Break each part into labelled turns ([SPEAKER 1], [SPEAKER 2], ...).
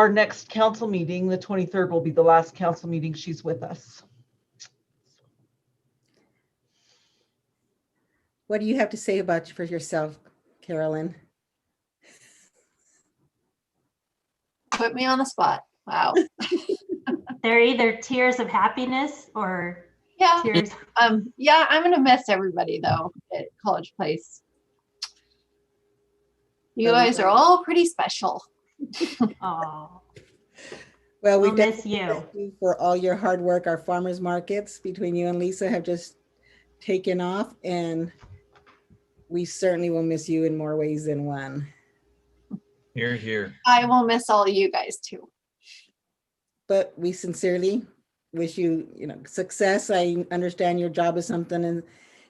[SPEAKER 1] Our next council meeting, the 23rd, will be the last council meeting she's with us.
[SPEAKER 2] What do you have to say about for yourself, Carolyn?
[SPEAKER 3] Put me on the spot. Wow.
[SPEAKER 4] They're either tears of happiness or
[SPEAKER 3] Yeah.
[SPEAKER 4] tears.
[SPEAKER 3] Um, yeah, I'm gonna miss everybody though at College Place. You guys are all pretty special.
[SPEAKER 4] Oh,
[SPEAKER 2] Well,
[SPEAKER 4] we'll
[SPEAKER 2] we've done
[SPEAKER 4] miss you.
[SPEAKER 2] Thank you for all your hard work. Our farmers markets between you and Lisa have just taken off and we certainly will miss you in more ways than one.
[SPEAKER 5] Here, here.
[SPEAKER 3] I will miss all you guys too.
[SPEAKER 2] But we sincerely wish you, you know, success. I understand your job is something and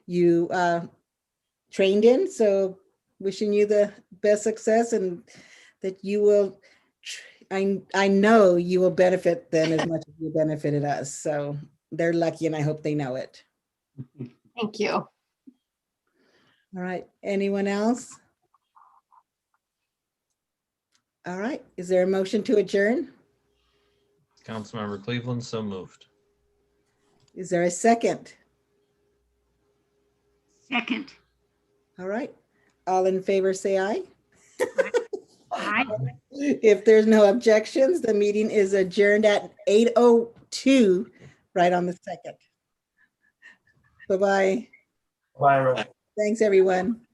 [SPEAKER 2] you uh trained in, so wishing you the best success and that you will tr- I I know you will benefit them as much as you benefited us. So they're lucky and I hope they know it.
[SPEAKER 3] Thank you.
[SPEAKER 2] All right, anyone else? All right, is there a motion to adjourn?
[SPEAKER 5] Councilmember Cleveland, so moved.
[SPEAKER 2] Is there a second?
[SPEAKER 6] Second.
[SPEAKER 2] All right, all in favor, say aye.
[SPEAKER 6] Aye.
[SPEAKER 2] If there's no objections, the meeting is adjourned at 8:02, right on the second. Bye-bye.
[SPEAKER 7] Byron.
[SPEAKER 2] Thanks, everyone.